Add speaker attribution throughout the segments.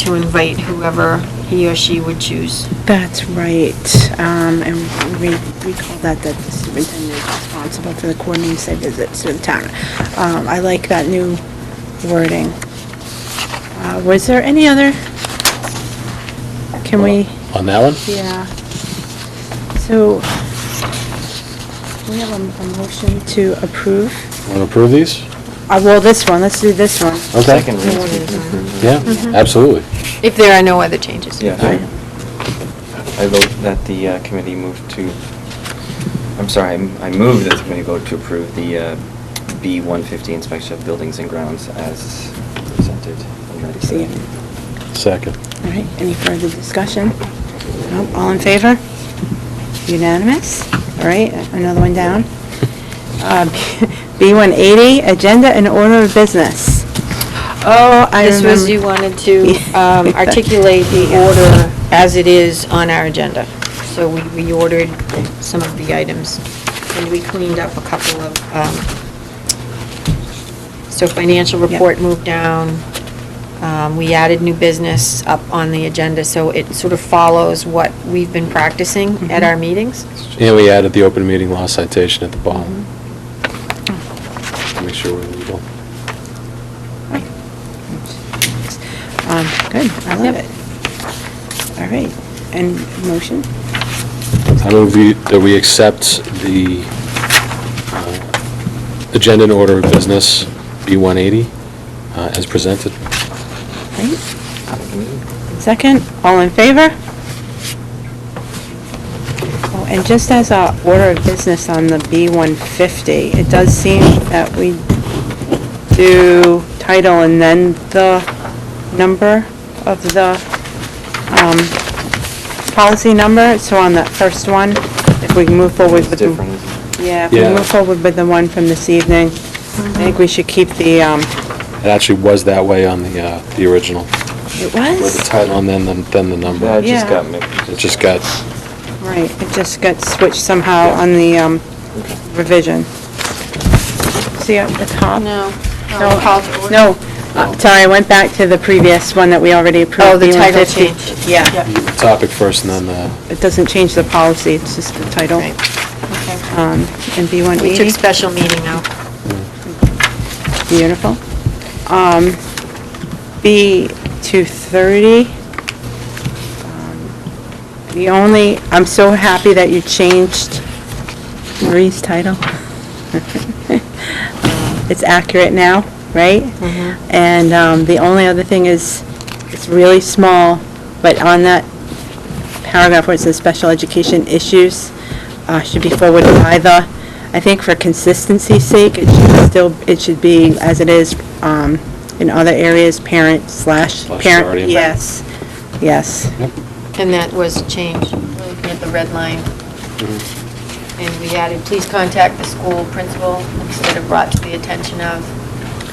Speaker 1: to invite whoever he or she would choose.
Speaker 2: That's right. Um, and we recall that, that the superintendent is responsible for the coordinating site visits to the town. Um, I like that new wording. Uh, was there any other? Can we,
Speaker 3: On that one?
Speaker 2: yeah. So, we have a, a motion to approve.
Speaker 3: Want to approve these?
Speaker 2: Uh, well, this one, let's do this one.
Speaker 3: Okay.
Speaker 4: Second Mm-hmm. reads we can approve.
Speaker 3: Yeah,
Speaker 2: Mm-hmm.
Speaker 3: absolutely.
Speaker 1: If there are no other changes.
Speaker 4: Yeah. I vote that the uh, committee move to, I'm sorry, I'm- I move that the committee vote to approve the uh, B-150 inspection of buildings and grounds as presented. and ready for
Speaker 2: See
Speaker 4: that.
Speaker 2: you.
Speaker 3: Second.
Speaker 2: All right, any further discussion? No, all in favor? Unanimous? All right, another one down. Uh, B180, Agenda and Order of Business. Oh, I
Speaker 1: This was,
Speaker 2: remember.
Speaker 1: you wanted to um, articulate the order as it is on our agenda. So we reordered some of the items, and we cleaned up a couple of, um, so financial
Speaker 2: Yep.
Speaker 1: report moved down. Um, We added new business up on the agenda, so it sort of follows what we've been practicing at our meetings.
Speaker 3: And we added the open meeting law citation at the bottom. Make sure we're legal.
Speaker 2: Um, Good, I love
Speaker 1: Yep.
Speaker 2: it. All right, and motion?
Speaker 3: I move we- that we accept the uh, agenda and order of business, B-180, uh, as presented.
Speaker 2: Right,
Speaker 4: Second reading?
Speaker 2: second, all in favor? Oh, And just as our order of business on the B-150, it does seem that we do title and then the number of the um, policy number, so on that first one, if we can move forward
Speaker 4: It's
Speaker 2: with
Speaker 4: different,
Speaker 2: the...
Speaker 4: isn't it?
Speaker 2: Yeah, if we
Speaker 3: Yeah.
Speaker 2: move forward with the one from this evening, I think we should keep the, um,
Speaker 3: It actually was that way on the, uh, the original,
Speaker 2: it
Speaker 3: with the
Speaker 2: was?
Speaker 3: title and then, the- then the
Speaker 4: Yeah,
Speaker 3: number.
Speaker 4: it just
Speaker 2: Yeah.
Speaker 4: got mixed.
Speaker 3: It just got,
Speaker 2: Right, it just got switched somehow
Speaker 4: Yeah.
Speaker 2: on the um,
Speaker 4: Okay.
Speaker 2: revision. See at the top? No,
Speaker 1: Call to order.
Speaker 2: No, uh, sorry, I went back to the previous one that we already approved.
Speaker 1: Oh, the title
Speaker 2: B150.
Speaker 1: change.
Speaker 2: Yeah,
Speaker 3: the topic first and then the
Speaker 2: it doesn't change the policy, it's just the title.
Speaker 1: Right. Okay.
Speaker 2: Um, And B180.
Speaker 1: We took special meeting out.
Speaker 2: Beautiful. Um, B230. Um, The only, I'm so happy that you changed Marie's title. Uh, It's accurate now, right? And um, the only other thing is, it's really small, but on that paragraph where it says special education issues uh, should be forwarded by the, I think for consistency's sake, it should still, it should be as it is um, in other areas, parent slash
Speaker 3: Slash
Speaker 2: parent.
Speaker 3: guardian.
Speaker 2: Yes, yes.
Speaker 1: And that was changed, looking at the red line. And we added, please contact the school principal instead of brought to the attention of.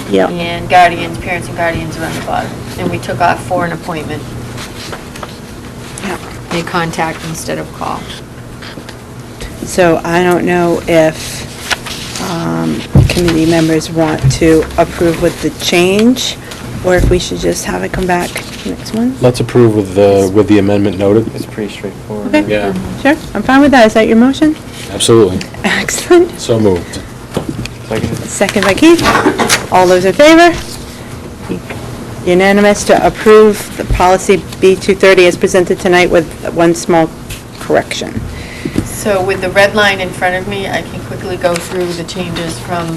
Speaker 2: Yep.
Speaker 1: And guardians, parents and guardians around the bottom. And we took off for an appointment,
Speaker 2: Yep.
Speaker 1: they contact instead of call.
Speaker 2: So I don't know if um, committee members want to approve with the change, or if we should just have it come back next one?
Speaker 3: Let's approve with the, with the amendment noted.
Speaker 4: It's pretty straightforward.
Speaker 2: Okay.
Speaker 3: Yeah.
Speaker 2: Sure, I'm fine with that. Is that your motion?
Speaker 3: Absolutely.
Speaker 2: Excellent.
Speaker 3: So moved.
Speaker 4: Second?
Speaker 2: Second by Keith. All those in favor? Unanimous to approve the policy B230 as presented tonight with one small correction.
Speaker 5: So with the red line in front of me, I can quickly go through the changes from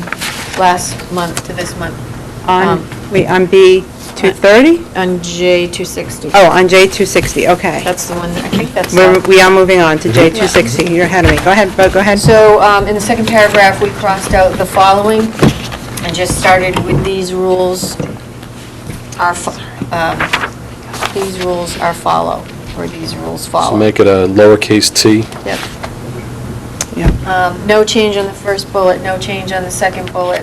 Speaker 5: last month to this month.
Speaker 2: On,
Speaker 5: Um,
Speaker 2: wait, on B230?
Speaker 1: On J two sixty.
Speaker 2: Oh, on J260, okay.
Speaker 5: That's the one, I think that's.
Speaker 2: We're- We are moving on to J260. You're ahead of me. Go ahead, Bo, go ahead.
Speaker 5: So um, in the second paragraph, we crossed out the following and just started with these rules are, fo- um, these rules are follow, or these rules follow.
Speaker 3: So make it a lowercase t.
Speaker 5: Yep.
Speaker 2: Yeah.
Speaker 5: Um, No change on the first bullet, no change on the second bullet.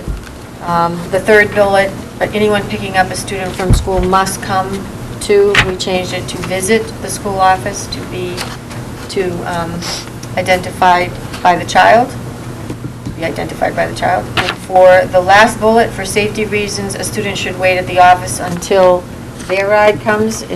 Speaker 5: Um, The third bullet, but anyone picking up a student from school must come to, we changed it to visit the school office to be, to um, identified by the child, to be identified by the child. And for the last bullet, for safety reasons, a student should wait at the office until their ride comes